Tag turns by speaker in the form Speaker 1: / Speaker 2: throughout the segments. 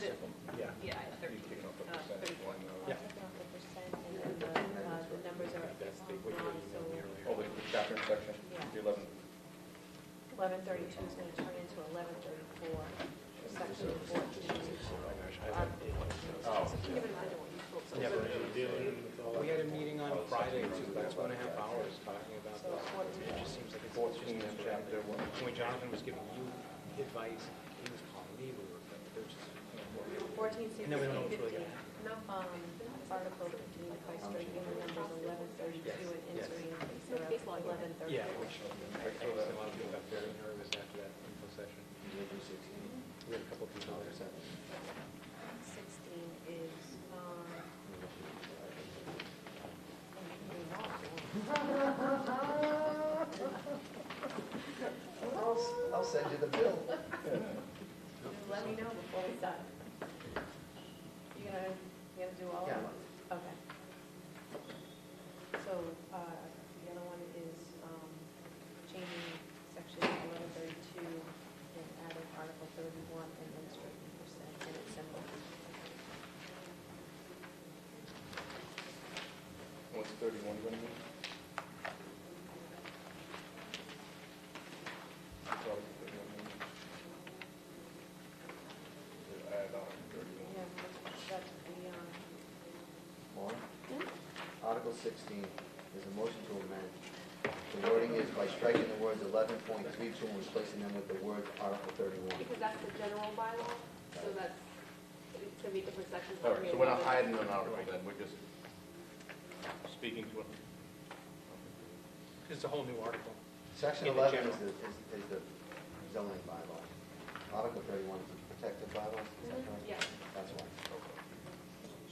Speaker 1: uh, two is going to turn into eleven thirty-four, section fourteen. Um, Give it another one, you folks.
Speaker 2: We had a meeting on Friday, it took about two and a half hours talking about this. It just seems like it's
Speaker 3: Fourteen,
Speaker 2: just
Speaker 3: chapter one.
Speaker 2: When Jonathan was giving you advice, he was calling me, we were, they're just.
Speaker 1: Fourteen,
Speaker 2: And then we don't know
Speaker 1: sixteen,
Speaker 2: what's
Speaker 1: fifteen.
Speaker 2: really gonna happen.
Speaker 1: No, um, article fifteen, by striking the numbers eleven thirty-two and
Speaker 2: Yes, yes.
Speaker 1: entering eleven
Speaker 2: Yeah,
Speaker 1: thirty-four.
Speaker 2: which, I told a lot of people got very nervous after that info session. We had a couple of people there, so.
Speaker 1: Sixteen is, um.
Speaker 3: I'll, I'll send you the bill.
Speaker 1: Let me know before we start. You gonna, you gonna do all of
Speaker 3: Yeah.
Speaker 1: them? Okay. So, uh, the other one is, um, changing section eleven thirty-two and adding article thirty-one and then striking percent and its symbol.
Speaker 3: What's thirty-one gonna be? That's all the 31 means. Just Add on thirty-one.
Speaker 1: Yeah, that's the, um,
Speaker 4: Maura? Article sixteen is a motion to amend. The wording is by striking the words eleven point three two and replacing them with the words Article thirty-one.
Speaker 5: Because that's the general bylaw, so that's, it's gonna be different sections.
Speaker 6: All right, so we're not hiding an article then, we're just speaking to it.
Speaker 2: It's a whole new article.
Speaker 4: Section
Speaker 2: In the
Speaker 4: eleven is the, is is the zoning bylaw. Article thirty-one is the protective bylaw, is that correct?
Speaker 5: Yeah,
Speaker 4: That's why.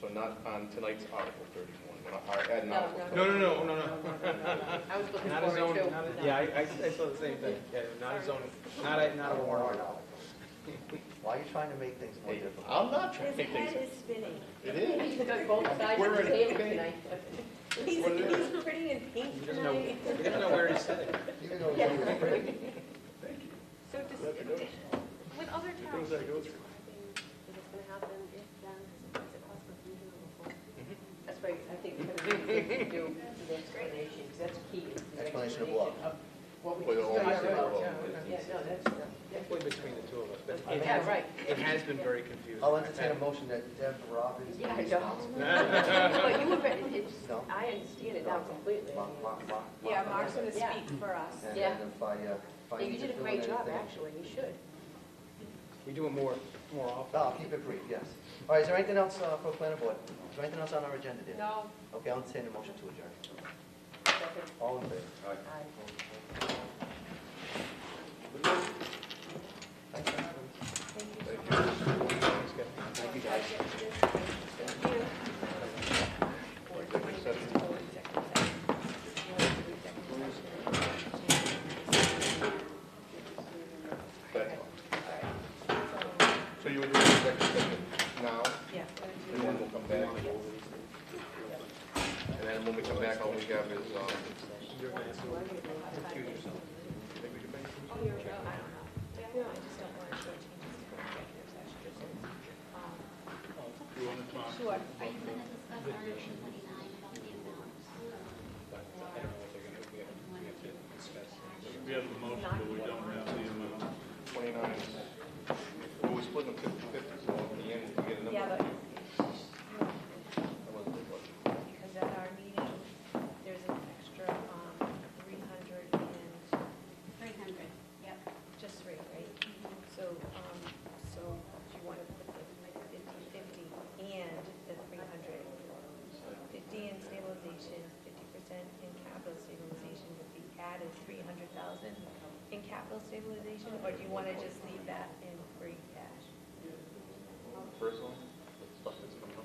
Speaker 6: So not on tonight's Article 31, we're not hi- adding
Speaker 5: No,
Speaker 6: Article
Speaker 5: no,
Speaker 2: No, no,
Speaker 6: 31.
Speaker 2: no, no, no.
Speaker 5: I was looking
Speaker 2: Not a zone,
Speaker 5: forward to.
Speaker 2: not a, yeah, I, I I saw the same thing. Yeah, not a zone, not a, not a warrant article.
Speaker 4: article. Why are you trying to make things more
Speaker 6: Hey,
Speaker 4: difficult?
Speaker 6: I'm not trying to
Speaker 1: his
Speaker 6: make
Speaker 1: head
Speaker 6: things.
Speaker 1: is spinning.
Speaker 6: It is.
Speaker 5: He took both sides of
Speaker 6: We're
Speaker 5: the
Speaker 6: in-
Speaker 5: table
Speaker 6: okay.
Speaker 5: tonight.
Speaker 1: He's,
Speaker 6: What it
Speaker 1: he's pretty in
Speaker 2: He
Speaker 1: pink
Speaker 2: doesn't know,
Speaker 1: tonight.
Speaker 2: he doesn't know where he's sitting.
Speaker 4: Even though it's only written,
Speaker 5: So does, with other towns, is this gonna happen if then, is it possible to do it before?
Speaker 7: That's why I think it's gonna be good to do the explanation, because that's key. is the
Speaker 4: Explanation of what?
Speaker 7: explanation of What we
Speaker 6: Well,
Speaker 7: just
Speaker 6: all
Speaker 7: talked
Speaker 6: these are
Speaker 7: about.
Speaker 6: all-
Speaker 7: Yeah, no, that's, that's-
Speaker 2: Halfway between the two of us, but it
Speaker 7: yeah,
Speaker 2: has,
Speaker 7: right.
Speaker 2: it has been very confusing.
Speaker 4: I'll entertain a motion that Deb Robbins be
Speaker 7: Yeah, I know.
Speaker 4: responsible.
Speaker 7: But you were, it's,
Speaker 4: No.
Speaker 7: I understand it now completely.
Speaker 4: Mark, Mark, Mark.
Speaker 1: Yeah, Mark's gonna
Speaker 7: Yeah.
Speaker 1: speak for us.
Speaker 4: And
Speaker 7: Yeah.
Speaker 4: then if I, uh, if I
Speaker 7: You
Speaker 4: need to
Speaker 7: did a
Speaker 4: fill in
Speaker 7: great job,
Speaker 4: anything-
Speaker 7: actually, you should.
Speaker 2: We do it more, more often.
Speaker 4: No, Oh, I'll keep it brief, yes. All right, is there anything else uh, for planning board? Is there anything else on our agenda, dear?
Speaker 5: No,
Speaker 4: Okay, I'll entertain a motion to adjourn. All in favor?
Speaker 7: I-
Speaker 6: But- So you would do the executive session now,
Speaker 1: Yeah.
Speaker 6: and then we'll come back. And then when we come back, all we have is, um,
Speaker 1: No, I just don't want to show changes to the executive session. Um, Sure.
Speaker 8: We have a motion, but we don't have the amount.
Speaker 6: 29, well, we're splitting them 50/50, so at the end, we get a number.
Speaker 1: Yeah, but
Speaker 6: That wasn't good, was it?
Speaker 1: because at our meeting, there's an extra um, 300 and,
Speaker 5: three hundred, yep.
Speaker 1: just three, right? So, um, so do you want to put the 50/50 and the 300? 50 in stabilization, 50% in capital stabilization would be added 300,000 in capital stabilization? Or do you want to just leave that in free cash?
Speaker 6: First one, the stuff that's coming up.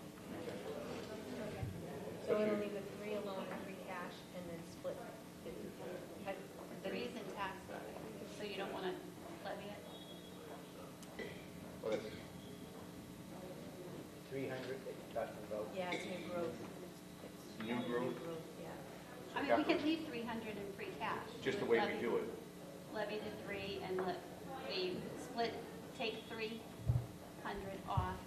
Speaker 1: So it'll leave the three alone, free cash, and then split fifty.
Speaker 9: But the reason tax levy, so you don't want to levy it?
Speaker 6: Oh, that's-
Speaker 2: Three hundred, talking about.
Speaker 1: Yeah, it's new growth. It's
Speaker 6: New growth?
Speaker 1: Yeah.
Speaker 9: I mean, we could leave 300 in free cash.
Speaker 6: Just the way we do it.
Speaker 9: Levy the three and let, we split, take 300 off